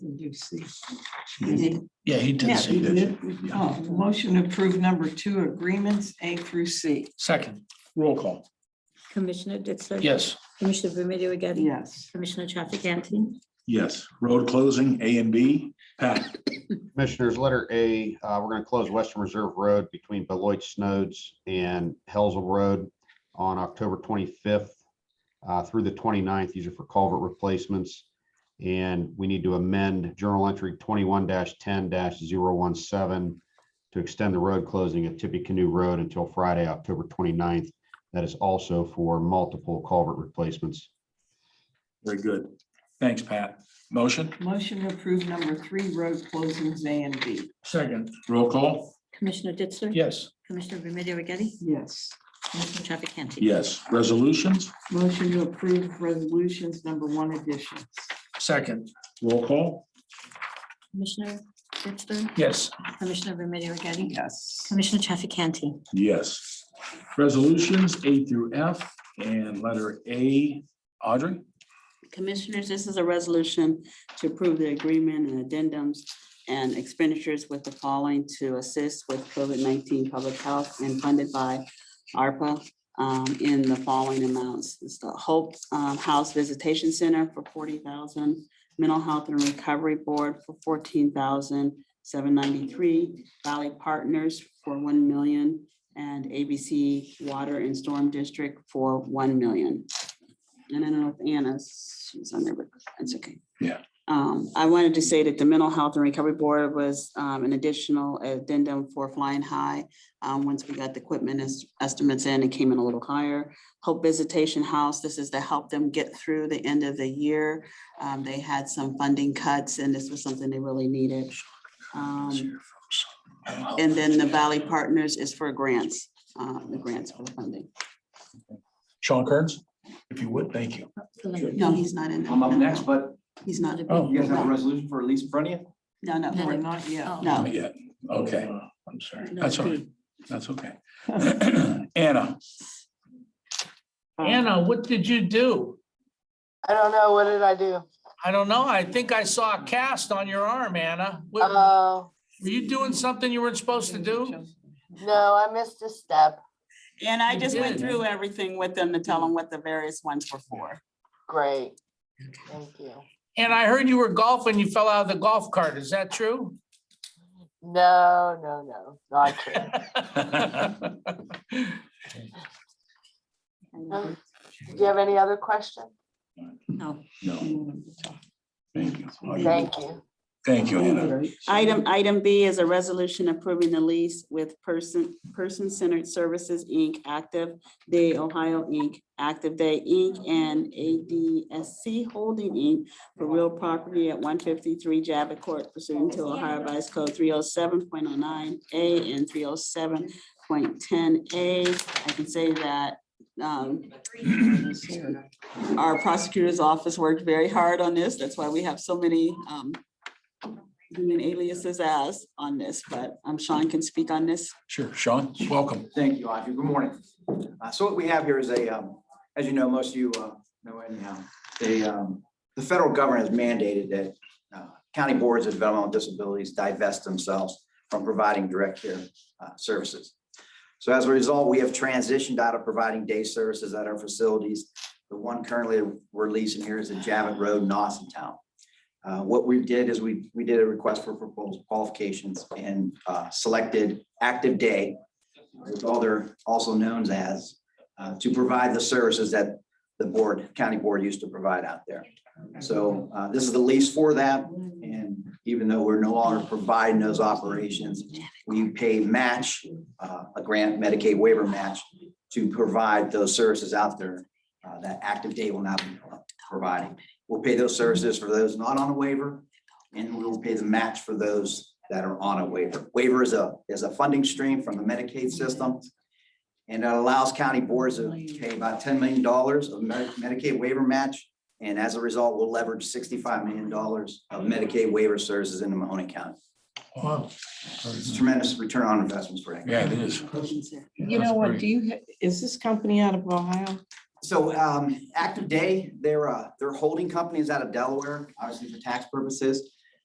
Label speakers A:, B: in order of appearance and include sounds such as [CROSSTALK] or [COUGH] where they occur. A: do C? You
B: Yeah,
A: did-
B: he
A: Yeah,
B: did say
A: you
B: that.
A: did.
B: Yeah.
A: Oh, motion to approve number two agreements A through C.
B: Second, roll call.
C: Commissioner Ditzler?
B: Yes.
C: Commissioner Remedy Agati?
A: Yes.
C: Commissioner Chafficanty?
B: Yes. Road closing, A and B. Pat,
D: Commissioners, letter A, uh, we're going to close Western Reserve Road between Beloit Snowds and Helsel Road on October 25th uh, through the 29th. These are for culvert replacements. And we need to amend Journal Entry 21-10-017 to extend the road closing at Tippecanoe Road until Friday, October 29th. That is also for multiple culvert replacements.
B: very good. Thanks, Pat. Motion?
A: Motion to approve number three road closings A and B.
B: Second. Roll call?
C: Commissioner Ditzler?
B: Yes.
C: Commissioner Remedy Agati?
A: Yes.
C: Commissioner Chafficanty?
B: Yes. Resolutions?
A: Motion to approve resolutions number one additions.
B: Second. Roll call?
C: Commissioner Ditzler?
B: Yes.
C: Commissioner Remedy Agati?
A: Yes.
C: Commissioner Chafficanty?
B: Yes. Resolutions A through F and letter A. Audrey?
E: Commissioners, this is a resolution to approve the agreement and addendums and expenditures with the following to assist with COVID-19 public health and funded by ARPA um, in the following amounts. It's the Hope um, House Visitation Center for 40,000, Mental Health and Recovery Board for 14,793, Valley Partners for 1 million, and ABC Water and Storm District for 1 million. And I don't know if Anna's, she's on there, but that's okay.
B: Yeah.
E: Um, I wanted to say that the Mental Health and Recovery Board was um, an additional addendum for Flying High. Um, once we got the equipment es- estimates in, it came in a little higher. Hope Visitation House, this is to help them get through the end of the year. Um, they had some funding cuts and this was something they really needed. Um, and then the Valley Partners is for grants, uh, the grants for the funding.
B: Sean Kearns? If you would, thank you.
E: No, he's not in. there.
F: I'm up next, but
E: He's not.
B: Oh.
F: you guys have a resolution for release in front of you?
E: No, no,
A: Or not yet.
C: Oh.
E: no.
B: Yeah, okay. Uh, I'm sorry. That's all right. That's okay. [CLEARS THROAT] Anna?
G: Anna, what did you do?
H: I don't know. What did I do?
G: I don't know. I think I saw a cast on your arm, Anna. What-
H: Oh,
G: Were you doing something you weren't supposed to do?
H: no, I missed a step.
E: And I
G: You
E: just went
G: did.
E: through everything with them to tell them what the various ones were for.
H: Great. Thank you.
G: And I heard you were golfing, you fell out of the golf cart. Is that true?
H: No, no, no, not true. Um, Do you have any other question?
B: No, thank you. Audrey.
H: Thank you.
B: Thank you, Anna.
E: Item, item B is a resolution approving the lease with Person, Person Centered Services, Inc., Active Day Ohio, Inc., Active Day, Inc., and ADSC Holding, Inc. for real property at one fifty-three Javits Court pursuant to Ohio Vice Code three oh seven point oh nine A and three oh seven point ten A. I can say that, um, our prosecutor's office worked very hard on this. That's why we have so many um, human aliases as on this, but um, Sean can speak on this.
B: Sure, Sean, welcome.
F: Thank you, Audrey. Good morning. Uh, So what we have here is a, um, as you know, most of you uh, know anyhow, they, um, the federal government has mandated that uh, county boards of developmental disabilities divest themselves from providing direct care uh, services. So as a result, we have transitioned out of providing day services at our facilities. The one currently we're leasing here is at Javits Road, in Austin Town. Uh, What we did is we, we did a request for proposal qualifications and uh, selected Active Day with all their also known as, uh, to provide the services that the board, county board used to provide out there. So uh, this is the lease for that, and even though we're no longer providing those operations, we pay match, uh, a grant Medicaid waiver match to provide those services out there uh, that Active Day will not be providing. We'll pay those services for those not on a waiver, and we will pay the match for those that are on a waiver. Waiver is a, is a funding stream from the Medicaid system. And it allows county boards to pay about ten million dollars of Medi- Medicaid waiver match. And as a result, we'll leverage sixty-five million dollars of Medicaid waiver services into Mahoney County.
B: Wow.
F: It's tremendous return on investments for that.
B: Yeah, it is.
A: You know what, do you, ha- is this company out of Ohio?
F: So um, Active Day, their, uh, their holding company is out of Delaware, obviously for tax purposes.